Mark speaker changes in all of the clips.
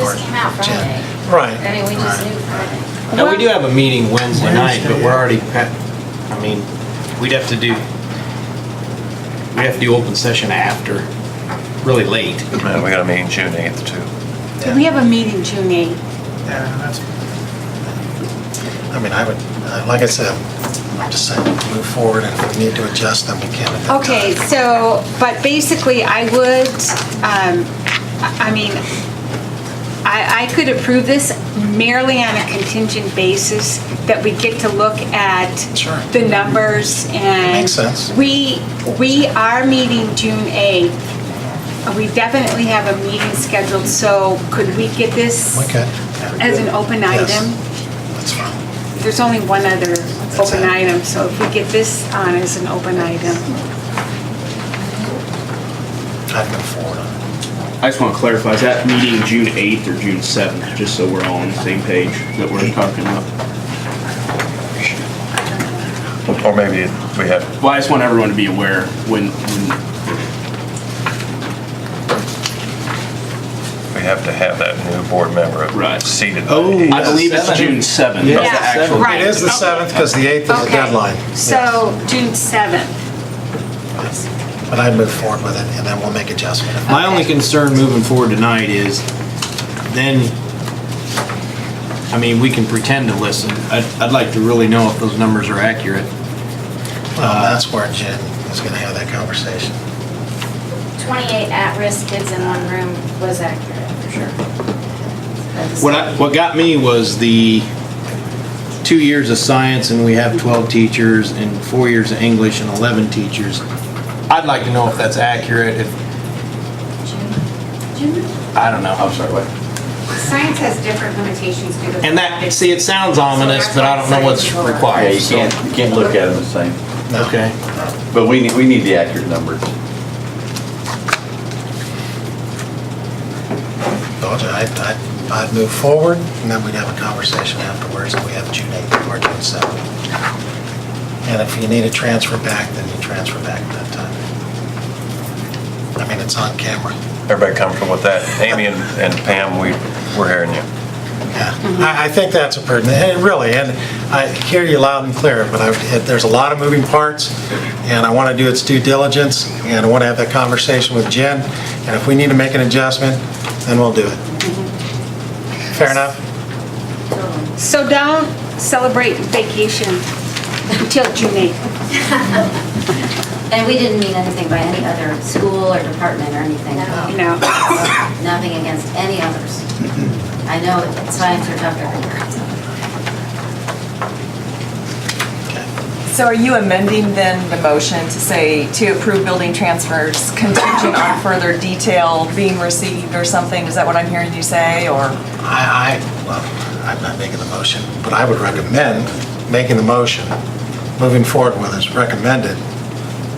Speaker 1: just came out Friday. I
Speaker 2: Right.
Speaker 1: mean, we just knew Friday.
Speaker 3: And we do have a meeting Wednesday night, but we're already, pa- I mean, we'd have to do, we'd have to do open session after, really late.
Speaker 4: And we got a meeting June 8th too.
Speaker 5: We have a meeting June 8th.
Speaker 2: Yeah, that's, I mean, I would, uh, like I said, I'm just saying, move forward, and if we need to adjust them, we can at that time.
Speaker 5: Okay, so, but basically, I would, um, I I mean, I, I could approve this merely on a contingent basis, that we get to look at
Speaker 2: Sure.
Speaker 5: the numbers and.
Speaker 2: Makes sense.
Speaker 5: We, we are meeting June 8th. We definitely have a meeting scheduled, so could we get this
Speaker 2: We could.
Speaker 5: as an open
Speaker 2: Yes.
Speaker 5: item?
Speaker 2: That's fine.
Speaker 5: There's only one other open
Speaker 2: it.
Speaker 5: item, so if we get this on as an open item.
Speaker 2: I'd move forward on it.
Speaker 6: I just want to clarify, is that meeting June 8th or June 7th? Just so we're all on the same page that we're talking about.
Speaker 4: Or maybe we have,
Speaker 6: Well, I just want everyone to be aware when, when
Speaker 4: we have to have that new board member
Speaker 6: Right.
Speaker 4: seated.
Speaker 3: Oh.
Speaker 6: I believe it's
Speaker 3: Seven.
Speaker 6: June 7th.
Speaker 3: Yeah.
Speaker 6: That's the actual
Speaker 5: Yeah, right.
Speaker 2: It is the 7th, because the 8th is the
Speaker 5: Okay.
Speaker 2: deadline.
Speaker 5: So June 7th.
Speaker 2: Yes. But I'd move forward with it, and then we'll make adjustments.
Speaker 3: My only concern moving forward tonight is then, I mean, we can pretend to listen. I'd, I'd like to really know if those numbers are accurate.
Speaker 2: Well, that's where Jen is going to have that conversation.
Speaker 1: 28 at-risk kids in one room was accurate, for sure. That's-
Speaker 3: What I, what got me was the two years of science and we have twelve teachers and four years of English and eleven teachers. I'd like to know if that's accurate, if,
Speaker 1: June- June?
Speaker 3: I don't know. I'm sorry, what?
Speaker 7: Science has different limitations due to. the
Speaker 3: And that,
Speaker 7: fact
Speaker 3: see, it sounds ominous, but I don't know what's
Speaker 8: Yeah,
Speaker 3: required,
Speaker 8: you
Speaker 3: so.
Speaker 8: can't, you can't look at them the same,
Speaker 2: No.
Speaker 3: Okay.
Speaker 8: but we need, we need the accurate numbers.
Speaker 2: Told you, I'd, I'd, I'd move forward, and then we'd have a conversation afterwards, and we have June 8th or June 7th. And if you need to transfer back, then you transfer back at that time. I mean, it's on camera.
Speaker 4: Everybody comfortable with that? Amy and and Pam, we, we're hearing you.
Speaker 2: Yeah, I, I think that's a pertinent, and really, and I hear you loud and clear, but I, it- there's a lot of moving parts, and I want to do its due diligence, and I want to have that conversation with Jen, and if we need to make an adjustment, then we'll do it. Fair enough?
Speaker 5: So don't celebrate vacation until June 8th.
Speaker 1: And we didn't mean anything by any other school or department or anything.
Speaker 5: You know,
Speaker 1: Nothing against any others. I know it's times are tough everywhere.
Speaker 9: So are you amending then the motion to say to approve building transfers contingent on further detail being received or something? Is that what I'm hearing you say, or?
Speaker 2: I, I, well, I'm not making the motion, but I would recommend making the motion, moving forward with it's recommended,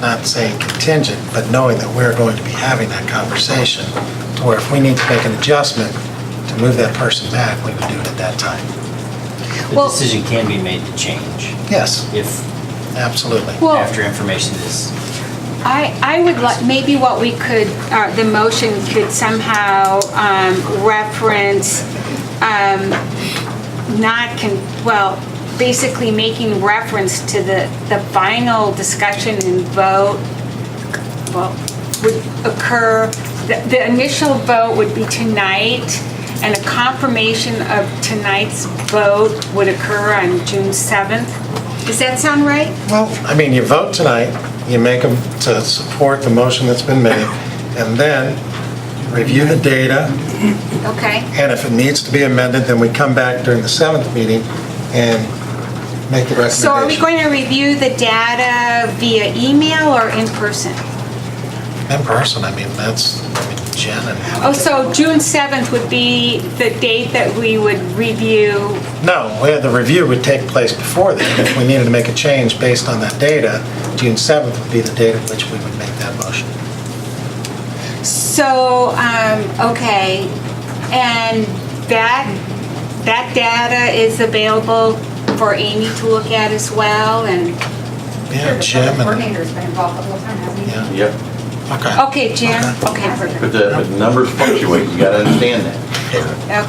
Speaker 2: not saying contingent, but knowing that we're going to be having that conversation, to where if we need to make an adjustment to move that person back, we would do it at that time.
Speaker 5: Well-
Speaker 10: The decision can be made to change
Speaker 2: Yes,
Speaker 10: if,
Speaker 2: absolutely.
Speaker 5: well,
Speaker 10: after information is
Speaker 5: I, I would like, maybe what we could, uh, the motion could somehow um, reference, um, not, con- well, basically making reference to the, the final discussion and vote, well, would occur, the the initial vote would be tonight, and a confirmation of tonight's vote would occur on June 7th. Does that sound right?
Speaker 2: Well, I mean, you vote tonight, you make them to support the motion that's been made, and then review the data,
Speaker 5: Okay.
Speaker 2: And if it needs to be amended, then we come back during the seventh meeting and make the recommendation.
Speaker 5: So are we going to review the data via email or in person?
Speaker 2: In person, I mean, that's, I mean, Jen and,
Speaker 5: Oh, so June 7th would be the date that we would review,
Speaker 2: no, we had the review would take place before that. If we needed to make a change based on that data, June 7th would be the date at which we would make that motion.
Speaker 5: so, um, okay, and that, that data is available for Amy to look at as well, and,
Speaker 2: Yeah,
Speaker 7: that
Speaker 2: Jim
Speaker 7: The
Speaker 2: and,
Speaker 7: coordinator's been involved the whole time, hasn't he?
Speaker 2: yeah,
Speaker 8: Yep,
Speaker 2: okay.
Speaker 5: okay, Jim, okay.
Speaker 8: but the, but the numbers fluctuate, you gotta understand that.
Speaker 2: Okay.
Speaker 5: Okay.